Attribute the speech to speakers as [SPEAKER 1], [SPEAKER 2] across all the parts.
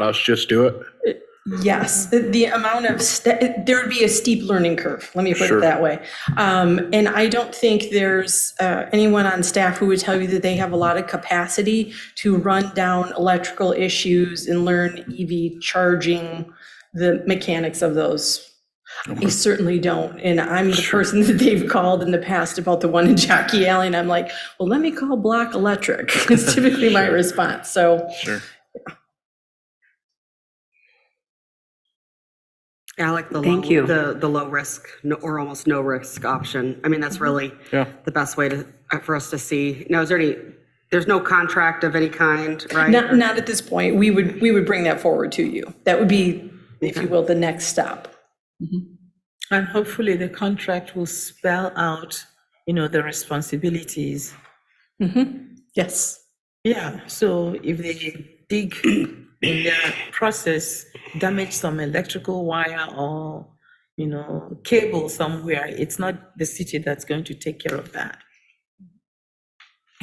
[SPEAKER 1] Let's just do it.
[SPEAKER 2] Yes, the- the amount of, st- there would be a steep learning curve, let me put
[SPEAKER 1] Sure.
[SPEAKER 2] it that way. Um, And I don't think there's uh, anyone on staff who would tell you that they have a lot of capacity to run down electrical issues and learn EV charging, the mechanics of those. I certainly don't, and I'm the person that they've called in the past about the one in Jockey Alley, and I'm like, well, let me call Block Electric, is typically my response, so.
[SPEAKER 1] Sure.
[SPEAKER 3] Alec, the
[SPEAKER 4] Thank
[SPEAKER 3] low,
[SPEAKER 4] you.
[SPEAKER 3] the the low risk no- or almost no risk option. I mean, that's
[SPEAKER 4] Mm-hmm.
[SPEAKER 3] really
[SPEAKER 1] Yeah.
[SPEAKER 3] the best way to uh, for us to see. Now, is there any? There's no contract of any kind, right?
[SPEAKER 2] Not, not at this point. We would, we would bring that forward to you. That would be, if you will, the next step.
[SPEAKER 5] And hopefully the contract will spell out, you know, the responsibilities.
[SPEAKER 2] Mm-hmm. Yes.
[SPEAKER 5] Yeah, so if they dig in their process, damage some electrical wire or, you know, cable somewhere, it's not the city that's going to take care of that.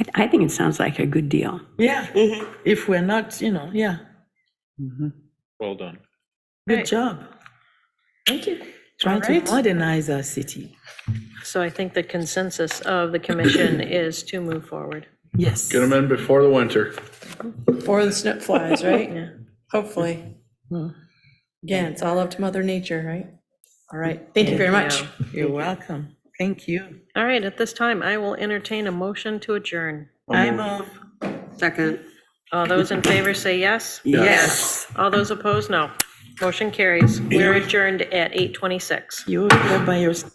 [SPEAKER 4] I- I think it sounds like a good deal.
[SPEAKER 5] Yeah,
[SPEAKER 2] Mm-hmm.
[SPEAKER 5] if we're not, you know, yeah,
[SPEAKER 1] Well done.
[SPEAKER 5] good job.
[SPEAKER 2] Thank you.
[SPEAKER 5] Trying to
[SPEAKER 2] Alright.
[SPEAKER 5] modernize our city.
[SPEAKER 6] So I think the consensus of the commission is to move forward.
[SPEAKER 5] Yes.
[SPEAKER 1] Get them in before the winter.
[SPEAKER 2] Or the snip flies,
[SPEAKER 6] Yeah.
[SPEAKER 2] right? Hopefully. Hmm. Again, it's all up to Mother Nature, right? All right. Thank you very much.
[SPEAKER 5] You're welcome. Thank you.
[SPEAKER 6] All right, at this time, I will entertain a motion to adjourn.
[SPEAKER 5] I move.
[SPEAKER 3] Second.
[SPEAKER 6] All those in favor say yes.
[SPEAKER 5] Yes.
[SPEAKER 6] All those opposed, no. Motion carries. We're adjourned at 8:26.
[SPEAKER 5] You were here by yourself.